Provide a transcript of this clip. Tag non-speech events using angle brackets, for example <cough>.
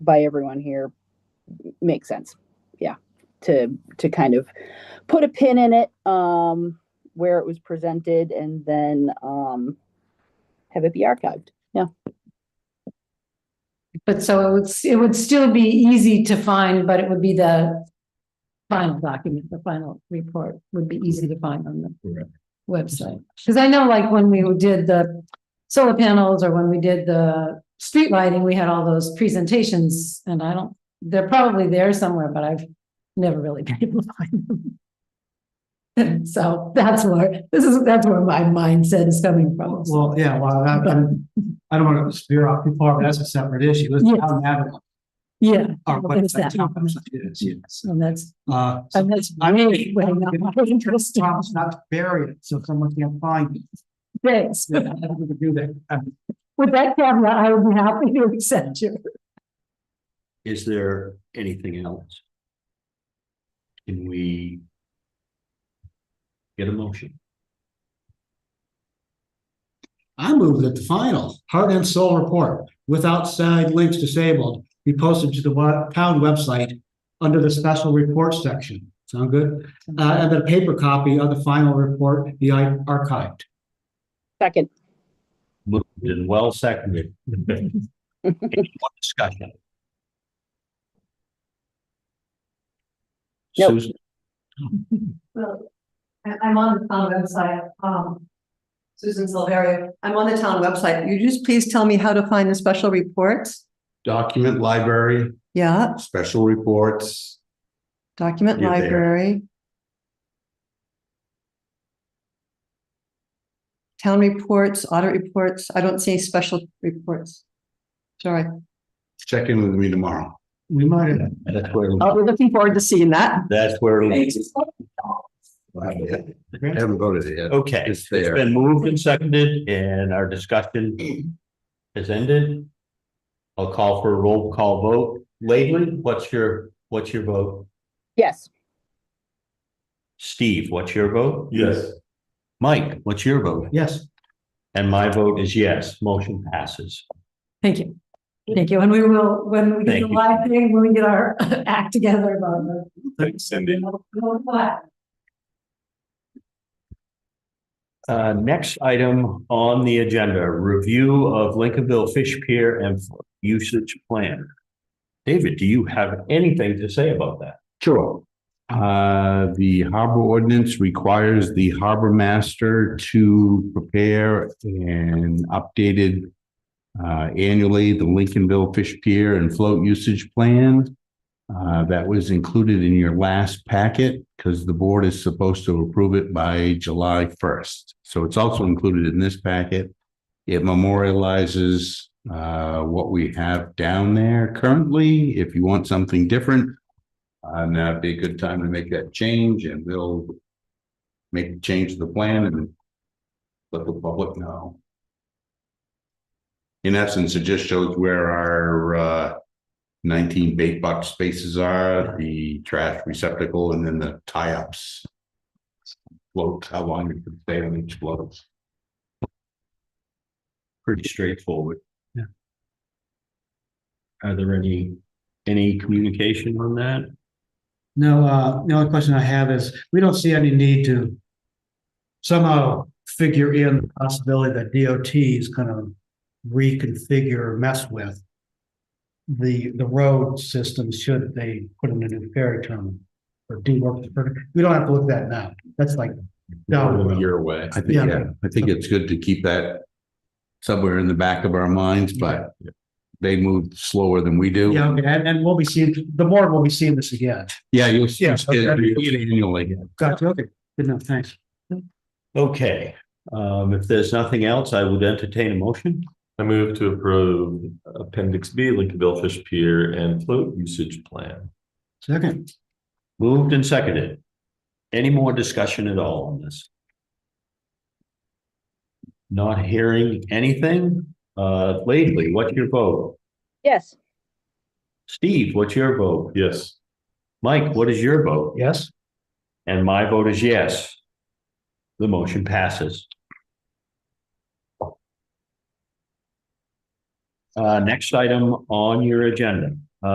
by everyone here makes sense. Yeah, to to kind of put a pin in it um, where it was presented and then um, have it be archived. Yeah, But so it would, s- it would still be easy to find, but it would be the final document, the final report would be easy to find on the Correct. website. Because I know like when we did the solar panels or when we did the street lighting, we had all those presentations and I don't, they're probably there somewhere, but I've never really <laughs> been able to find them. And <laughs> so that's where, this is, that's where my mindset is coming from. Well, yeah, well, I, I'm- I don't want to spear off too far, but that's a separate issue. Let's Yes. not have it. Yeah. Our Well, there's website, that. town website is, yes. And that's, Uh, so and that's I'm- way, way not interesting. promise not to bury it, so someone can't find it. Thanks. Yeah, I think we could do that. Um, With that caveat, I would be happy to accept your Is there anything else? Can we? Get a motion? I move that the final heart and soul report with outside links disabled be posted to the wa- town website under the special report section. Sound good? Uh, and the paper copy of the final report be ar- archived. second. Moved and well seconded. Any more Discussion. Nope. Susan, Well, I, I'm on the town website, um, Susan Silverio, I'm on the town website. You just please tell me how to find the special reports? document library, Yeah, special reports. document You're there. library. Town reports, audit reports. I don't see any special reports. Sorry. Check in with me tomorrow. We might have that's where, Uh, Oh, we're looking forward to seeing that. that's where. it'll be. I haven't voted yet. Okay, It's it's there. been moved and seconded and our discussion has ended. I'll call for a roll call vote. Leyland, what's your, what's your vote? Yes, Steve, what's your vote? Yes. Mike, what's your vote? Yes, And my vote is yes, motion passes. Thank you. Thank you. And we will, when we get Thank the you. live thing, when we get our <laughs> act together about the. Thanks, Cindy. Uh, next item on the agenda, review of Lincolnville Fish Pier and usage plan. David, do you have anything to say about that? Sure. Uh, the harbor ordinance requires the harbor master to prepare an updated uh, annually, the Lincolnville Fish Pier and Float Usage Plan. Uh, that was included in your last packet because the board is supposed to approve it by July first. So it's also included in this packet. It memorializes uh, what we have down there currently. If you want something different, uh, now'd be a good time to make that change and we'll make the change to the plan and let the public know. In essence, it just shows where our, uh, nineteen bait box spaces are, the trash receptacle, and then the tie-ups. Float, how long it could stay on each float. Pretty straightforward. Yeah. Are there any, any communication on that? no, uh, the only question I have is, we don't see any need to somehow figure in the possibility that DOT is gonna reconfigure, or mess with the, the road system should they put in a new ferry terminal or do work, we don't have to look at that now, that's like, Over a no, year away. I think, Yeah. yeah, I think it's good to keep that somewhere in the back of our minds, but they move slower than we do. yeah, okay, and, and we'll be seeing, the board will be seeing this again. Yeah, you'll see Yeah, it okay. annually. Gotcha, okay, good enough, thanks. Okay, um, if there's nothing else, I would entertain a motion. I move to approve Appendix B, Lincolnville Fish Pier and Float Usage Plan. Second, Moved and seconded. Any more discussion at all on this? Not hearing anything? Uh, Lately, what's your vote? yes, Steve, what's your vote? Yes. Mike, what is your vote? yes? And my vote is yes. The motion passes. Uh, next item on your agenda,